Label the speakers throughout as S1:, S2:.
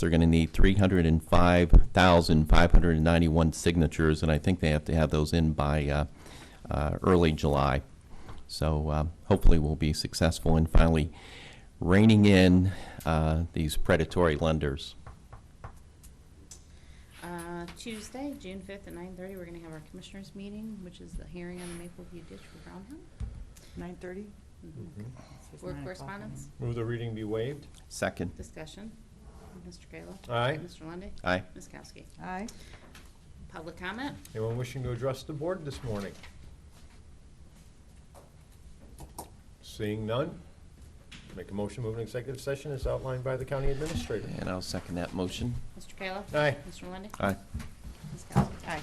S1: They're going to need 305,591 signatures, and I think they have to have those in by uh, uh, early July. So uh, hopefully, we'll be successful in finally reining in uh, these predatory lenders.
S2: Uh, Tuesday, June 5th at 9:30, we're going to have our commissioners' meeting, which is the hearing on the Maple View ditch for Brown Hill.
S3: Nine thirty? Mm-hmm.
S2: Board correspondence,
S4: Move the reading be waived.
S1: Second.
S2: discussion. Mr. Kayla.
S4: Aye.
S2: Mr. Lundy.
S1: Aye.
S2: Ms. Kowski.
S3: Aye.
S2: Public comment.
S4: Anyone wishing to address the board this morning? Seeing none, make a motion, to move an executive session as outlined by the county administrator.
S1: And I'll second that motion.
S2: Mr. Kayla.
S4: Aye.
S2: Mr. Lundy.
S1: Aye.
S2: Ms. Kowski. Aye.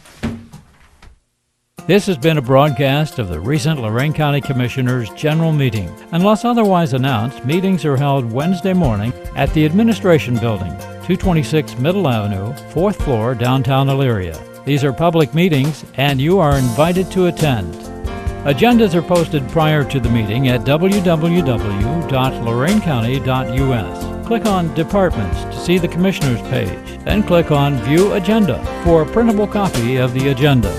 S5: This has been a broadcast of the recent Lorraine County Commissioners' General Meeting. Unless otherwise announced, meetings are held Wednesday morning at the Administration Building, 226 Middle Avenue, 4th floor, downtown Elyria. These are public meetings, and you are invited to attend. Agendas are posted prior to the meeting at www.lorainecounty.us. Click on Departments to see the Commissioners page, then click on View Agenda for a printable copy of the agenda.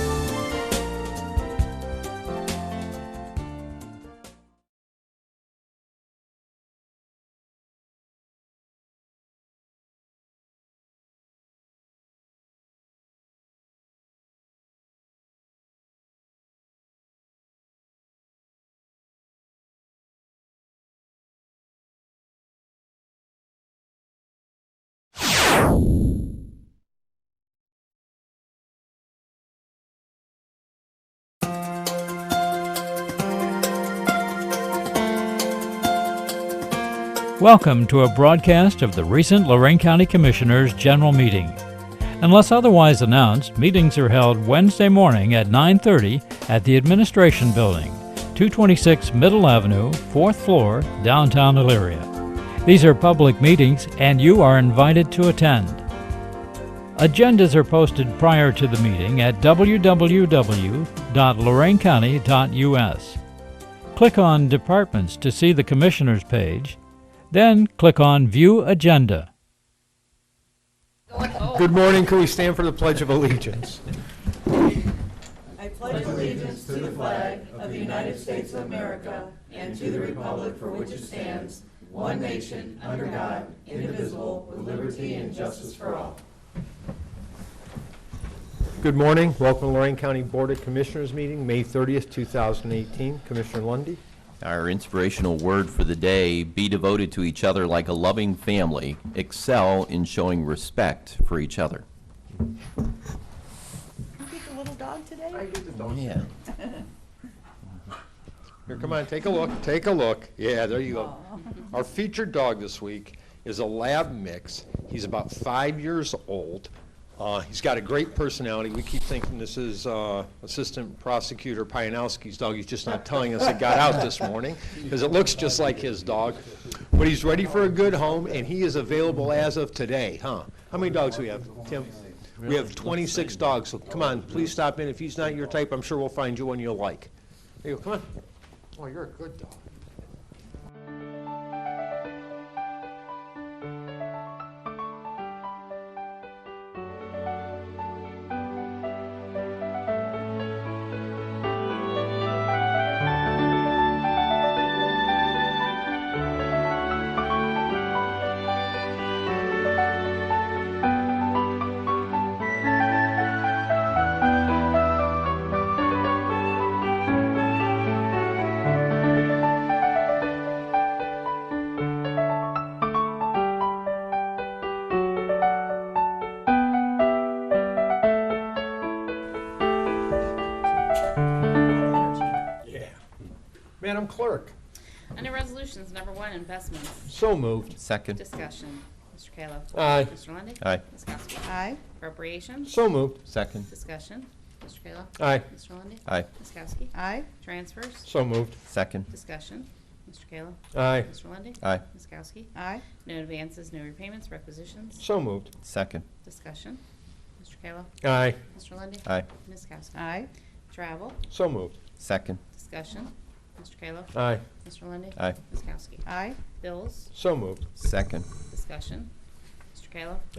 S5: Welcome to a broadcast of the recent Lorraine County Commissioners' General Meeting. Unless otherwise announced, meetings are held Wednesday morning at 9:30 at the Administration Building, 226 Middle Avenue, 4th floor, downtown Elyria. These are public meetings and you are invited to attend. Agendas are posted prior to the meeting at www.loraincounty.us. Click on Departments to see the Commissioners page, then click on View Agenda.
S4: Good morning, can we stand for the Pledge of Allegiance? Good morning, welcome to Lorraine County Board of Commissioners meeting, May 30th, 2018. Commissioner Lundy.
S1: Our inspirational word for the day be devoted to each other like a loving family, excel in showing respect for each other.
S3: You get the little dog today?
S1: Yeah.
S4: Here, come on, take a look, take a look. Yeah, there you go. Our featured dog this week is a lab mix. He's about five years old. Uh, he's got a great personality. We keep thinking this is uh, Assistant Prosecutor Pianowski's dog. He's just not telling us it got out this morning because it looks just like his dog. But he's ready for a good home, and he is available as of today, huh? How many dogs do we have, Tim? We have 26 dogs. So come on, please stop in. If he's not your type, I'm sure we'll find you one you'll like. There you go. Come on. Oh, you're a good dog. Yeah. Madam Clerk.
S2: Under resolutions, number one, investments.
S4: So moved.
S1: Second.
S2: Discussion. Mr. Kayla.
S4: Aye.
S2: Mr. Lundy.
S1: Aye.
S2: Ms. Kowski.
S3: Aye.
S2: Appropriations.
S4: So moved.
S1: Second.
S2: Discussion. Mr. Kayla.
S4: Aye.
S2: Mr. Lundy.
S1: Aye.
S2: Ms. Kowski.
S3: Aye.
S2: Transfers.
S4: So moved.
S1: Second.
S2: Discussion. Mr. Kayla.
S4: Aye.
S2: Mr. Lundy.
S1: Aye.
S2: Ms. Kowski.
S3: Aye.
S2: No advances, no repayments, requisitions,
S4: So moved.
S1: Second.
S2: discussion. Mr. Kayla.
S4: Aye.
S2: Mr. Lundy,
S1: Aye.
S2: Ms. Kowski.
S3: Aye.
S2: Travel,
S4: So moved.
S1: Second.
S2: discussion. Mr. Kayla.
S4: Aye.
S2: Mr. Lundy,
S1: Aye.
S2: Ms. Kowski.
S3: Aye.
S2: Bills,
S4: So moved.
S1: Second.
S2: discussion. Mr. Kayla?